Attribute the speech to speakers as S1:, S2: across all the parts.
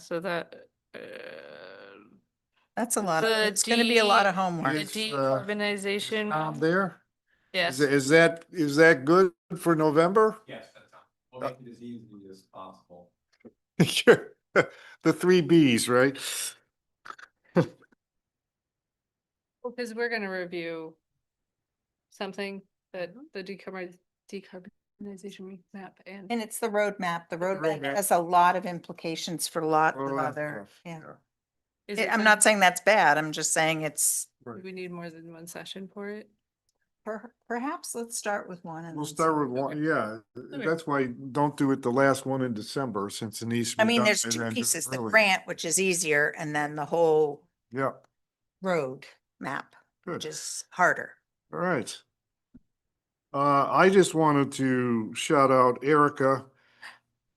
S1: so that, uh,
S2: That's a lot. of-
S1: The
S2: It's gonna be a lot
S1: D-
S2: of homework.
S1: the
S3: Is, uh, Tom
S1: decarbonization,
S3: Um, there? Is,
S1: yes.
S3: is that, is that good for November?
S4: Yes, that's how, we'll make it as easy as possible.
S3: The three Bs, right?
S1: Because we're gonna review something that the decarboniz- decarbonization map and.
S2: And it's the roadmap. The roadmap
S3: roadmap.
S2: has a lot of implications for lots of
S3: Well,
S2: other,
S3: yeah.
S2: yeah.
S1: Is
S2: It-
S1: it
S2: I'm
S1: some-
S2: not saying that's bad. I'm just saying it's
S1: Do we need more than one session for it?
S2: per- perhaps let's start with one. and
S3: We'll
S2: then
S3: start
S2: see.
S3: with one, yeah,
S1: Okay.
S3: that's why don't do it the last one in December since it needs. to
S2: I
S3: be
S2: mean,
S3: done
S2: there's
S3: and
S2: two
S3: then do it
S2: pieces, the
S3: early.
S2: grant, which is easier, and then the whole
S3: Yeah,
S2: road map, which
S3: good,
S2: is harder.
S3: all right. Uh, I just wanted to shout out Erica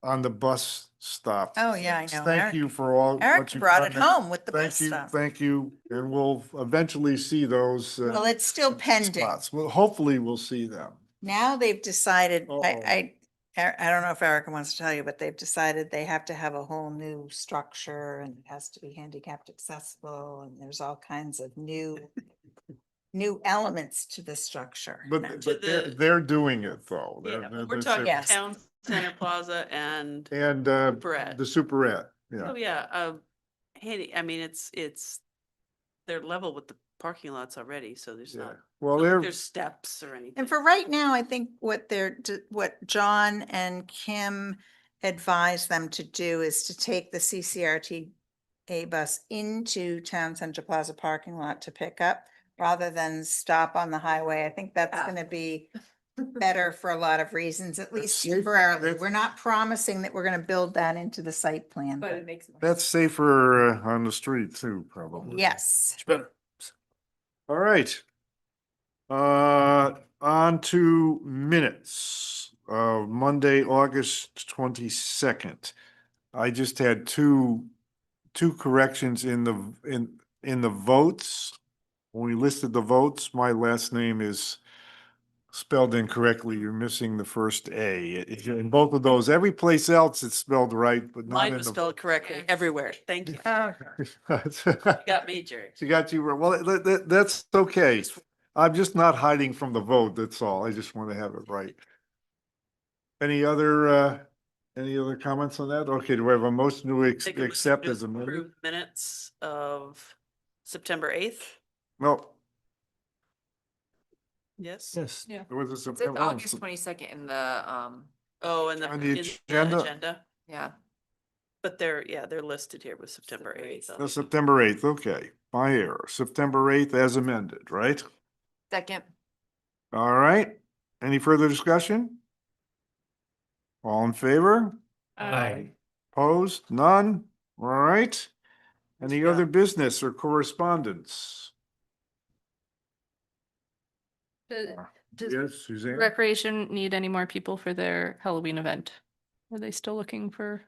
S3: on the bus stop.
S2: Oh, yeah, I know.
S3: Thank you for all. what
S2: Eric
S3: you've
S2: brought
S3: done
S2: it
S3: there.
S2: home with the bus
S3: Thank you,
S2: stuff.
S3: thank you, and we'll eventually see those. uh,
S2: Well, it's still pending.
S3: spots. Well, hopefully we'll see them.
S2: Now they've decided,
S3: Uh-oh.
S2: I, I, Er- I don't know if Erica wants to tell you, but they've decided they have to have a whole new structure and it has to be handicapped accessible and there's all kinds of new, new elements to the structure. now.
S3: But, but they're,
S5: the-
S3: they're doing it though. They're-
S5: Yeah,
S3: they're-
S5: We're
S3: they're-
S5: talking
S2: Yes.
S5: Town Center Plaza and,
S3: And, uh,
S5: Superette.
S3: the superette, yeah.
S5: oh yeah, uh, handy, I mean, it's, it's, they're level with the parking lots already, so there's
S3: yeah.
S5: not,
S3: Well,
S5: not like
S3: they're,
S5: there's steps or anything.
S2: And for right now, I think what they're, d- what John and Kim advised them to do is to take the CCRT A bus into Town Center Plaza parking lot to pick up rather than stop on the highway. I think that's
S5: Ah.
S2: gonna be better for a lot of reasons, at least
S3: safe-
S2: temporarily.
S3: that's-
S2: We're not promising that we're gonna build that into the site plan.
S1: But
S2: but
S1: it makes. more
S3: that's
S1: sense.
S3: safer uh, on the street too, probably.
S2: Yes,
S3: It's better. All right. Uh, on to minutes of Monday, August twenty-second. I just had two, two corrections in the, in, in the votes. When we listed the votes, my last name is spelled incorrectly. You're missing the first A. It- In both of those, every place else it's spelled right, but not
S5: Mine
S3: in
S5: was
S3: the.
S5: spelled correctly everywhere. Thank you. You Got me, Jerry.
S3: She got you. wrong. Well, that, that, that's okay. I'm just not hiding from the vote. That's all. I just want to have it right. Any other, uh, any other comments on that? Okay, do we have a motion to ex-
S5: Take a motion
S3: accept
S5: to
S3: as amended?
S5: approve Minutes of September eighth,
S3: No,
S5: yes?
S3: yes.
S1: Yeah.
S3: It was a
S6: It's
S3: September. oh,
S6: August twenty-second in the, um,
S5: Oh, and the.
S3: On the
S5: in
S3: agenda.
S6: yeah.
S5: But they're, yeah, they're listed here with September eighth.
S3: No, September eighth, okay. My error. September eighth as amended, right?
S6: Second,
S3: All right. Any further discussion? All in favor?
S1: Aye.
S3: Opposed? None? All right. Any
S5: Yeah.
S3: other business or correspondence?
S1: Does- does
S3: Yes, Suzanne?
S1: Recreation need any more people for their Halloween event? Are they still looking for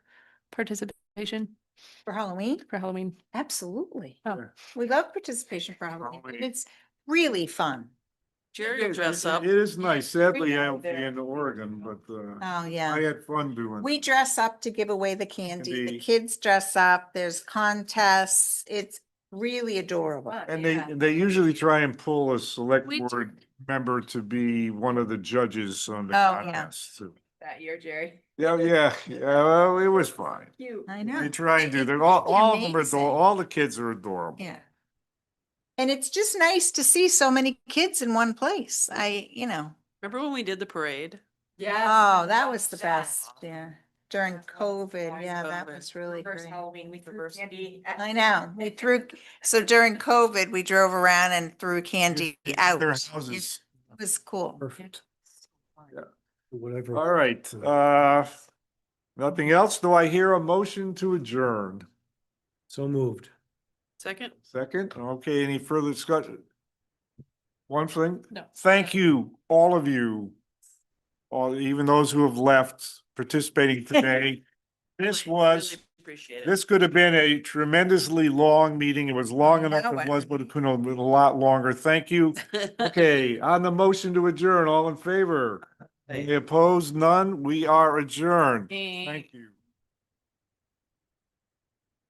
S1: participation
S2: for Halloween,
S1: for Halloween?
S2: absolutely.
S1: Oh.
S3: Sure.
S2: We love participation for Halloween.
S3: Halloween.
S2: It's really fun.
S5: Jerry will dress up.
S3: It is nice. Sadly, I
S6: down
S3: will be
S6: there.
S3: in Oregon, but uh,
S2: Oh, yeah.
S3: I had fun doing.
S2: We dress up to give away the candy. The
S3: Indeed.
S2: kids dress up. There's contests. It's really adorable.
S3: And they, they usually try and pull a select
S1: We do.
S3: board member to be one of the judges on the
S2: Oh, yeah.
S3: contest. too.
S6: That year, Jerry.
S3: Yeah, yeah, yeah, well, it was fine.
S6: Cute.
S2: I
S3: They
S2: know.
S3: try and do, they're all,
S2: It's
S3: all of them are,
S2: amazing.
S3: ador- all the kids are adorable.
S2: Yeah. And it's just nice to see so many kids in one place. I, you know,
S5: Remember when we did the parade?
S6: Yeah.
S2: oh, that was the best. Yeah. During COVID. Yeah, that
S5: COVID.
S2: was really great.
S6: Halloween, we threw candy. at-
S2: I know. We threw, so during COVID, we drove around and threw candy
S3: Their
S2: out. It
S3: houses.
S2: was cool.
S3: Perfect.
S4: Whatever.
S3: All right, uh, nothing else? Do I hear a motion to adjourn?
S4: So moved.
S5: Second?
S3: Second, okay, any further discussion? One thing,
S1: No.
S3: thank you, all of you, all, even those who have left participating today. This
S5: Really-
S3: was,
S5: really Appreciate it.
S3: this could have been a tremendously long meeting. It was long
S2: I
S3: enough,
S2: know
S3: it
S2: it.
S3: was, but it could have been a lot longer. Thank you. Okay, on the motion to adjourn, all in favor? Any opposed? None? We are adjourned. Thank you.